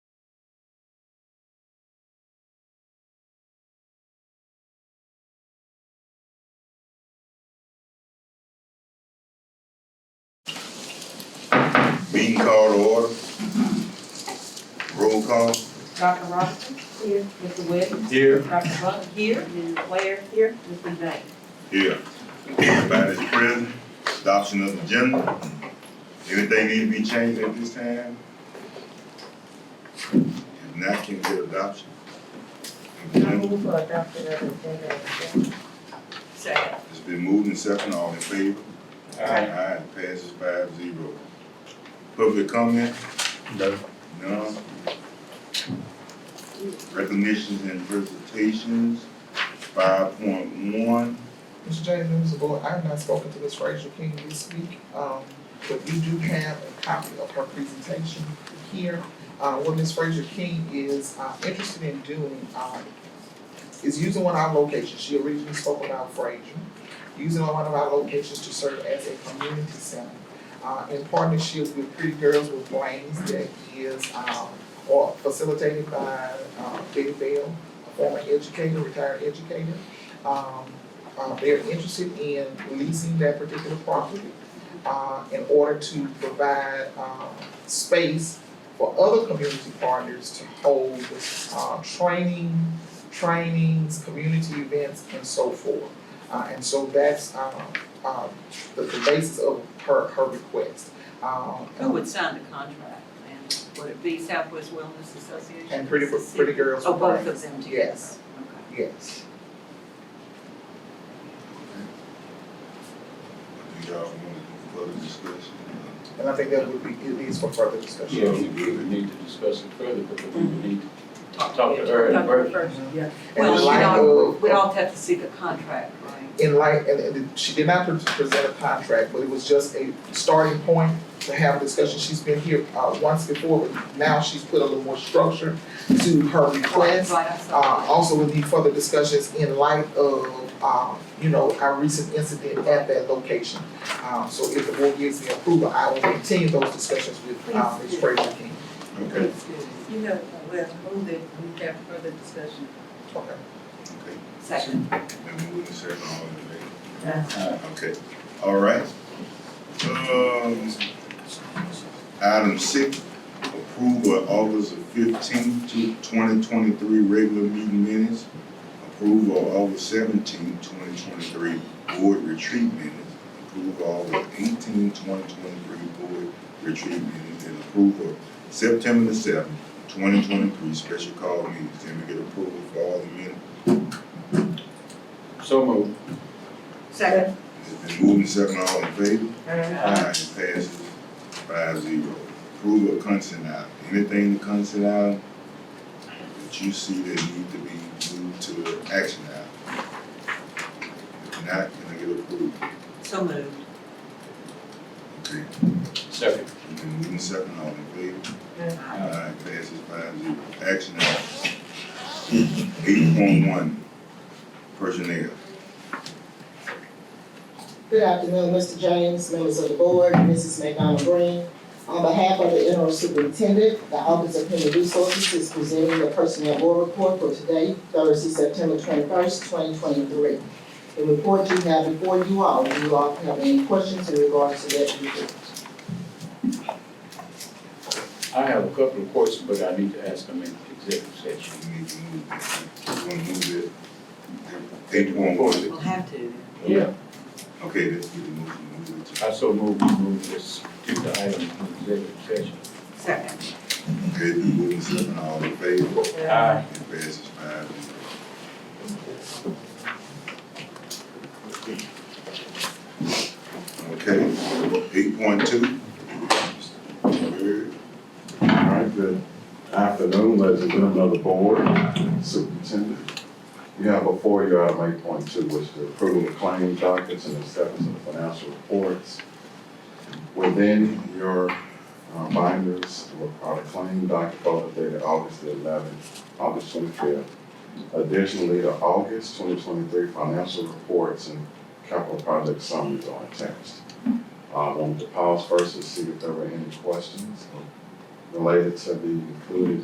Call to order. Roll call. Dr. Robinson? Here. Mr. Webb? Here. Dr. Butler? Here. Ms. Ware? Here. Mr. Knight? Here. Everybody's present. Adoption of agenda. Anything need to be changed at this time? If not, can we get adoption? move for adoption of agenda as Second. It's been moved and second, all in favor? Aye, passes five zero. Public comment? No. None. Recognitions and presentations, five point one. Mr. James, members of the board, I have not spoken to Ms. Frazier King this week, um, but we do have a copy of her presentation here. Uh, what Ms. Frazier King is, uh, interested in doing, um, is using one of our locations, she originally spoke about Frazier, using one of our locations to serve as a community center. Uh, in partnership with Pretty Girls with Blames that is, um, or facilitated by, uh, Betty Bell, a former educator, retired educator. Um, uh, they're interested in leasing that particular property, uh, in order to provide, um, space for other community partners to hold, uh, training, trainings, community events, and so forth. Uh, and so that's, um, uh, the, the basis of her, her request. Um, Who would sign the contract? And would it be Southwest Wellness Association? And pretty, pretty girls. Oh, both Right. of them together? Yes. Okay. Yes. Do y'all want to do further discussion? And I think that would be, it is for further discussion. Yeah, we we would need to discuss it further, but we would need Talk Talk to her in Talk to her person. first, yeah. And Well, in you light know, of- we'd all have to see the contract, right? in light, and, and she did not pre- present a contract, but it was just a starting point to have a discussion. She's been here, uh, once before, but now she's put a little more structure to her request. Right, I saw Uh, also we need further discussions in light of, um, you know, our recent incident at that location. Um, so if the board gives me approval, I will continue those discussions with, uh, Ms. Fraser King. Okay, Please do. You know, we'll move it, we have further discussion. Okay. okay. Second. Then move to second, all in favor? to. Okay, all right. Um, item six, approval of August fifteenth to twenty twenty-three regular meeting minutes. Approval of August seventeenth, twenty twenty-three board retreat minutes. Approval of August eighteenth, twenty twenty-three board retreat minutes. And approval of September the seventh, twenty twenty-three special call meetings. Can we get approval for all the minutes? So moved. Second. It's been moved and seconded, all in favor? Aye, passes five zero. Approval of consent item, anything to consent item that you see that need to be moved to action item? If not, can I get approved? So moved. Okay, Second. you can move in second, all in favor? Aye. Aye, passes five zero. Action item. Eight point one, personnel. Good afternoon, Mr. James, members of the board, Mrs. McDonald Green. On behalf of the interim superintendent, the Office of Human Resources is presenting the personnel board report for today, Thursday, September twenty-first, twenty twenty-three. The report you have before you all, do you all have any questions in regards to that report? I have a couple of questions, but I need to ask them in executive session. You need to move that. You wanna move that? Eight point one, We'll have to. Yeah, okay, let's get the motion, move it. I so move, we move this, to the item in executive session. Second. Okay, been moved and seconded, all in favor? Uh, Aye. It passes five zero. Okay, eight point two. All right, good afternoon, ladies and gentlemen of the board, superintendent. You have before you item eight point two, which is the approval of claim dockets and acceptance of financial reports. Within your uh, binders are the claim docket for the date of August the eleventh, August twenty-fifth. Additionally, the August twenty twenty-three financial reports and capital project summaries are attached. Uh, I wanted to pause first to see if there were any questions related to the included